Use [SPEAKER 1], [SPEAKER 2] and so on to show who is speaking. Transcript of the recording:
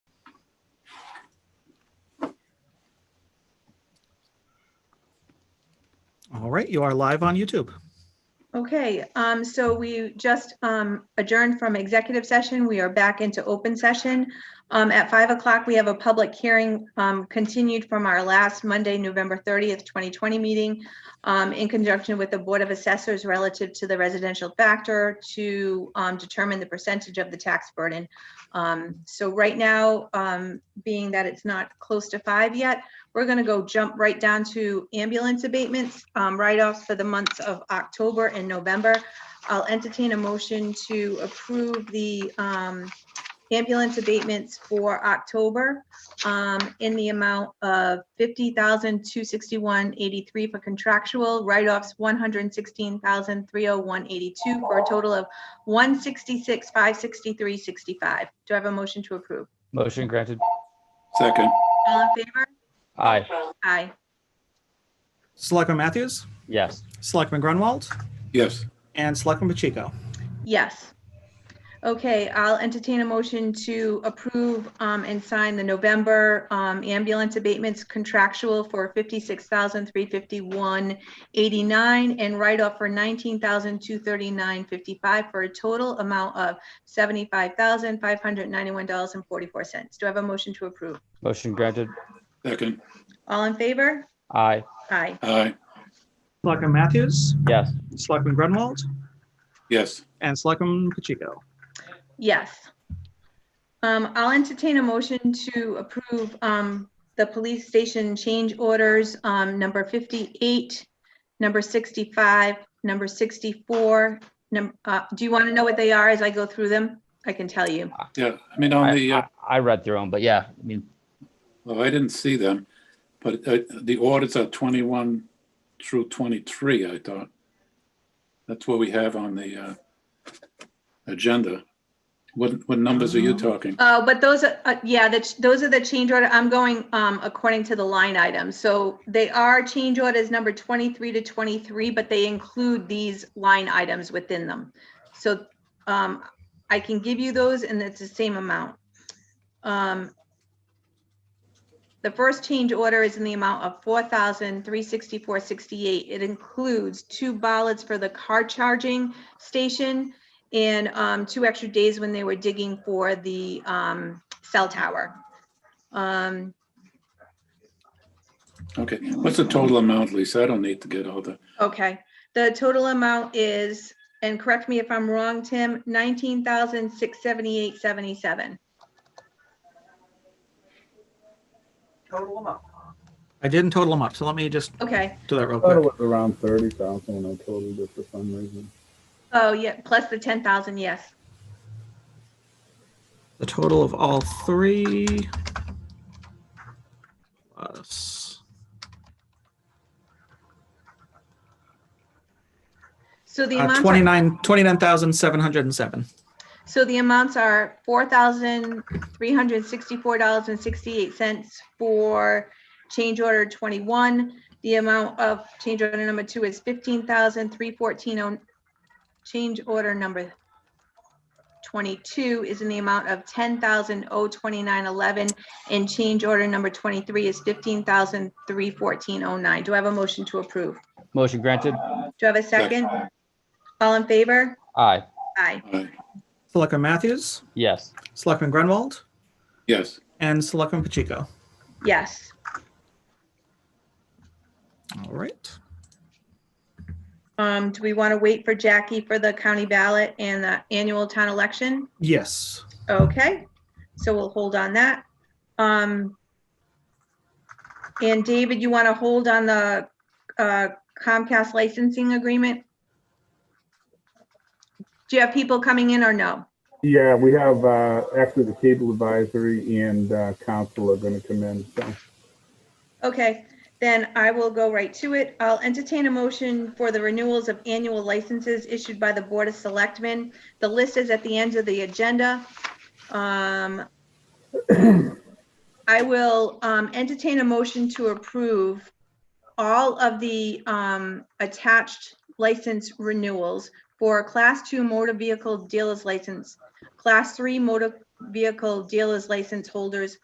[SPEAKER 1] All right, you are live on YouTube.
[SPEAKER 2] Okay, um, so we just, um, adjourned from executive session. We are back into open session. Um, at five o'clock, we have a public hearing, um, continued from our last Monday, November thirtieth, twenty twenty meeting, um, in conjunction with the Board of Assessors relative to the residential factor to, um, determine the percentage of the tax burden. Um, so right now, um, being that it's not close to five yet, we're gonna go jump right down to ambulance abatements, um, write-offs for the months of October and November. I'll entertain a motion to approve the, um, ambulance abatements for October, um, in the amount of fifty thousand, two sixty-one, eighty-three for contractual, write-offs, one hundred and sixteen thousand, three oh one, eighty-two, for a total of one sixty-six, five sixty-three, sixty-five. Do I have a motion to approve?
[SPEAKER 3] Motion granted.
[SPEAKER 4] Second,
[SPEAKER 2] All in favor?
[SPEAKER 3] Aye.
[SPEAKER 2] Aye.
[SPEAKER 1] Selectman Matthews,
[SPEAKER 3] Yes.
[SPEAKER 1] Selectman Grunwald,
[SPEAKER 4] yes,
[SPEAKER 1] and Selectman Pacheco.
[SPEAKER 2] Yes. Okay, I'll entertain a motion to approve um, and sign the November um, ambulance abatements contractual for fifty-six thousand three fifty-one eighty-nine and write-off for nineteen thousand two thirty-nine fifty-five for a total amount of seventy-five thousand five hundred ninety-one dollars and forty-four cents. Do I have a motion to approve?
[SPEAKER 3] Motion granted.
[SPEAKER 4] second,
[SPEAKER 2] All in favor?
[SPEAKER 3] Aye.
[SPEAKER 2] Aye.
[SPEAKER 4] aye,
[SPEAKER 1] Selectman Matthews,
[SPEAKER 3] Yes.
[SPEAKER 1] Selectman Grunwald,
[SPEAKER 4] yes,
[SPEAKER 1] and Selectman Pacheco.
[SPEAKER 2] Yes. Um, I'll entertain a motion to approve, um, the police station change orders, um, number fifty-eight, number sixty-five, number sixty-four, num, uh, do you want to know what they are as I go through them? I can tell you.
[SPEAKER 4] yeah, I mean, on
[SPEAKER 3] I,
[SPEAKER 4] the, uh,
[SPEAKER 3] I- I read through them, but yeah, I mean,
[SPEAKER 4] well, I didn't see them, but uh, the audits are twenty-one through twenty-three, I thought. That's what we have on the uh, agenda. What, what numbers are you talking?
[SPEAKER 2] Uh, but those, are- uh, yeah, that's, those are the change order, I'm going, um, according to the line item. So they are change orders number twenty-three to twenty-three, but they include these line items within them. So, um, I can give you those and it's the same amount. Um, the first change order is in the amount of four thousand three sixty-four sixty-eight. It includes two ballots for the car charging station, and um, two extra days when they were digging for the um, cell tower. Um,
[SPEAKER 4] Okay, what's the total amount, Lisa? I don't need to get all the,
[SPEAKER 2] Okay, the total amount is, and correct me if I'm wrong, Tim, nineteen thousand six seventy-eight seventy-seven.
[SPEAKER 1] I didn't total them up, so let me just
[SPEAKER 2] Okay,
[SPEAKER 1] do that real
[SPEAKER 5] thought it
[SPEAKER 1] quick.
[SPEAKER 5] was around thirty thousand when I totaled it for some reason.
[SPEAKER 2] oh yeah, plus the ten thousand, yes.
[SPEAKER 1] The total of all three. plus-
[SPEAKER 2] So the
[SPEAKER 1] Uh,
[SPEAKER 2] amount.
[SPEAKER 1] 29, 29,707.
[SPEAKER 2] So the amounts are four thousand three hundred sixty-four dollars and sixty-eight cents for change order twenty-one. The amount of change order number two is fifteen thousand three fourteen oh. Change order number twenty-two is in the amount of ten thousand oh twenty-nine eleven. And change order number twenty-three is fifteen thousand three fourteen oh nine. Do I have a motion to approve?
[SPEAKER 3] motion granted.
[SPEAKER 2] Do I have a second? All in favor?
[SPEAKER 3] Aye.
[SPEAKER 2] Aye.
[SPEAKER 4] aye,
[SPEAKER 1] Selectman Matthews,
[SPEAKER 3] Yes.
[SPEAKER 1] Selectman Grunwald,
[SPEAKER 4] yes,
[SPEAKER 1] and Selectman Pacheco.
[SPEAKER 2] Yes.
[SPEAKER 1] All right.
[SPEAKER 2] Um, do we want to wait for Jackie for the county ballot and the annual town election?
[SPEAKER 1] Yes.
[SPEAKER 2] Okay, so we'll hold on that. Um, and David, you want to hold on the uh, Comcast licensing agreement? Do you have people coming in or no?
[SPEAKER 5] Yeah, we have, uh, actually the cable advisory and, uh, council are gonna come in, so.
[SPEAKER 2] Okay, then I will go right to it. I'll entertain a motion for the renewals of annual licenses issued by the Board of Selectmen. The list is at the end of the agenda. Um, I will um, entertain a motion to approve all of the um, attached license renewals for Class 2 motor vehicle dealer's license, Class 3 motor vehicle dealer's license holders,